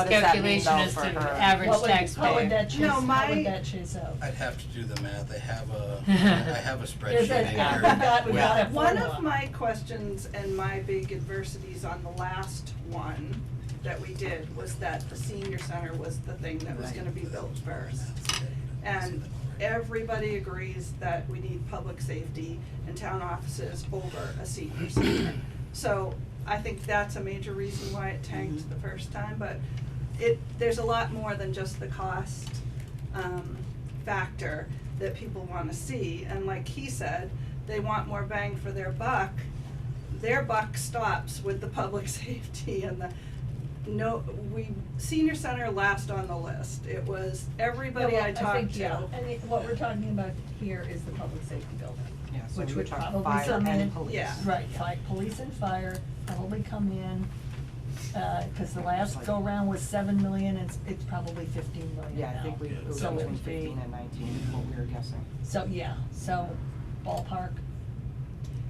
What does that mean calculation though as for to her? average What would, how would taxpayer. that No, chase, how my- would that chase out? I'd have to do the math, I have a, I have a spreadsheet Is it- in yeah, here. we got- we with- got it. One of formula. my questions and my big adversities on the last one that we did was that the senior center was the thing that was gonna be built first. And everybody agrees that we need public safety and town offices over a senior center. So I think that's a major reason why it tanked the first time, but it, there's a lot more than just the cost, um, factor that people wanna see, and like he said, they want more bang for their buck. Their buck stops with the public safety and the, no, we, senior center last on the list, it was everybody Yeah, well, I think, talked to. yeah, And it- what we're talking about here is the public safety building. Yeah, so Which we would talk probably fire come and in- police. Yeah. Right, fi- police and fire probably come in, uh, cause the last go round was seven million, it's, it's probably fifteen million Yeah, I now. think we, it was So it between would be- fifteen and nineteen, is what we were guessing. So, yeah, so ballpark,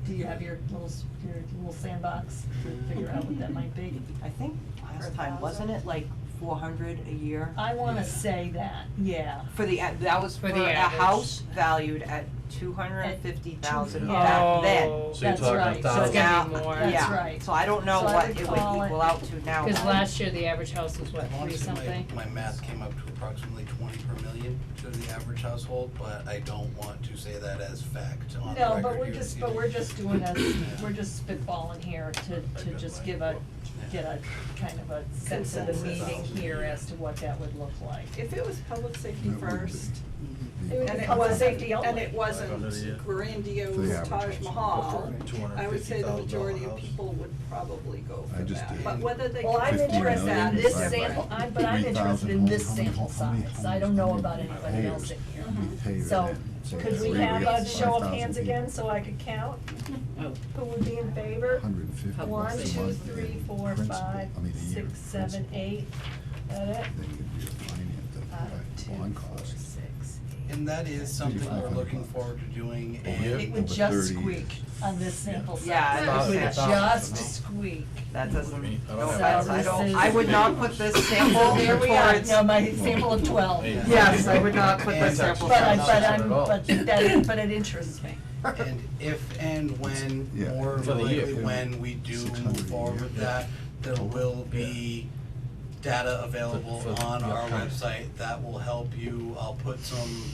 do you have your little, s- your little sandbox to figure out what that might be? I think last time, thousand? Uh, wasn't it like four hundred a year? I wanna Yeah. say that, yeah. For the, a- that was For for the a average. house valued at two hundred and fifty thousand Oh. back then. So you're That's talking right. a So thousand. it's gonna be more. That's Yeah. right. So I don't know So I what would it would call it- equal out to now. Cause last year, the average house was what, I wanna three say something? my, my math came up to approximately twenty per million to the average household, but I don't want to say that as fact on the record No, but we're here. just, but we're just doing a, we're just spitballing here to, to Like a just light give a, bulb. get a kind of a sense of the Consensus. meeting here as to what that would look like. If it was public safety first, and it Public wasn't, safety and only. it Under the, uh, wasn't for the grandiose average Taj house. Mahal, $250,000 I would say the majority of house. people would probably go I for just that, did. but whether they. Well, I'm 15 interested in million this divided by sample, I, but I'm interested in 3,000 this homes, how many sample homes, how many size, I homes, don't know how many about anybody else in payers? here. We pay So, that in. So could that we way have got a show of 5,000 hands people. again so I could count? Who would be in favor? 150 bucks a One, two, month three, in four, principal. five, I mean, a year six, seven, principal. eight, that it? Then you'd be financed at Five, that two, bond four, cost. six, eight. And that is something we're 500 looking bucks. forward to doing Over here? and It would Over just 30. squeak on this sample size. Yeah, I It was would gonna say. just squeak. That doesn't, I no don't have offense, I that. don't, I would not put this sample Well, here we are, towards. now my sample of twelve. Hey. Yes, I would not put this And- sample. But I, size. but Not at I'm, all. but that, but it interests me. And if and when, Yeah. or For the year. likely when we do 600 move forward with that, there will be data available For- for on the our upcoming. website that will help you. I'll put some,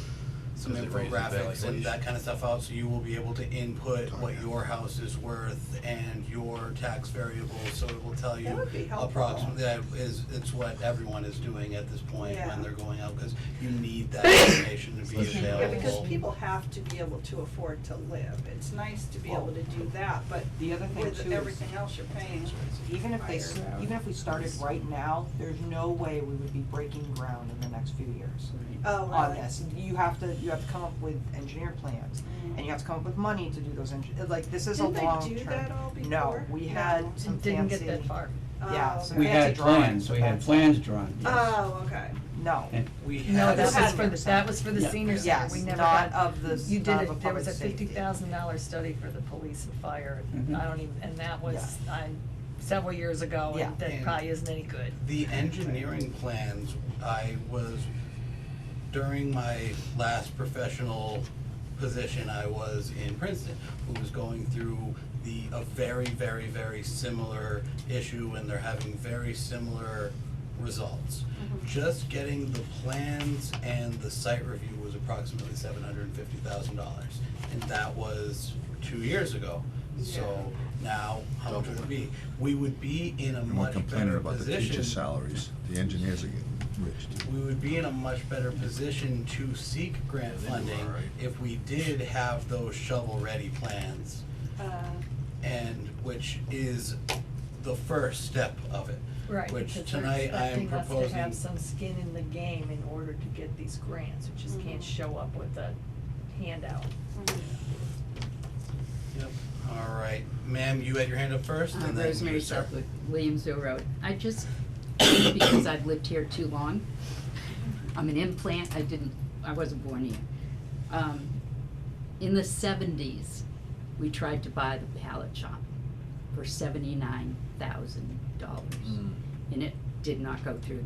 some Does it raise the infographics and valuation? that kind of stuff out, so you will be able to input what your house is worth and your tax variables, so it will tell you That would be helpful. approximately, that is, it's what everyone is doing at this point Yeah. when they're going out, because you need that information to be Excuse me. available. Yeah, because people have to be able to afford to live, it's nice to be able to do that, but The other thing with too is, everything else you're paying, even if they, s- Higher. even if we started right now, there's no way we would be breaking ground in the next few years oh, really? on this. You have to, you have to come up with engineer plans, and you have to come up with money to do those engi- like, this is a long term. Didn't they do that all before? No, we had some It fancy. didn't get that far. yeah, Oh, so okay. We had Fancy drawings, plans, we had that's- plans drawn, yes. Oh, okay, No, And We No, had. that was had for, the that was for the Yeah. senior center, yes, we never not got, of the, you not did of a it, there was a public safety. fifty thousand dollar study for the police and fire, Mhm. Mm-hmm. I don't even, and that was, I, several years ago, Yeah. and that And- probably isn't any good. The engineering plans, I was, during my last professional position, I was in Princeton, who was going through the, a very, very, very similar issue, and they're having very similar results. Just getting the plans and the site review was approximately seven hundred and fifty thousand dollars, and that was two years ago. So now, how much would it be? We would be in a And we're much complaining better about the teachers' position, salaries, the engineers are getting rich too. we would be in a much better position to seek grant Yeah, they do funding all right. if we did have those shovel-ready plans, uh, and, which is the first step of it. Right, Which because they're tonight I am expecting us to proposing- have some skin in the game in order to get these grants, we Mm-hmm. just can't show up with a handout. Yep. All right, ma'am, you had your hand up first, Uh, and then you, Rosemary sir. Southwood, Williamsville Road. I just, because I've lived here too long, I'm an implant, I didn't, I wasn't born here. Um, in the seventies, we tried to buy the pallet shop Hmm. for seventy-nine thousand dollars. And it did not go through.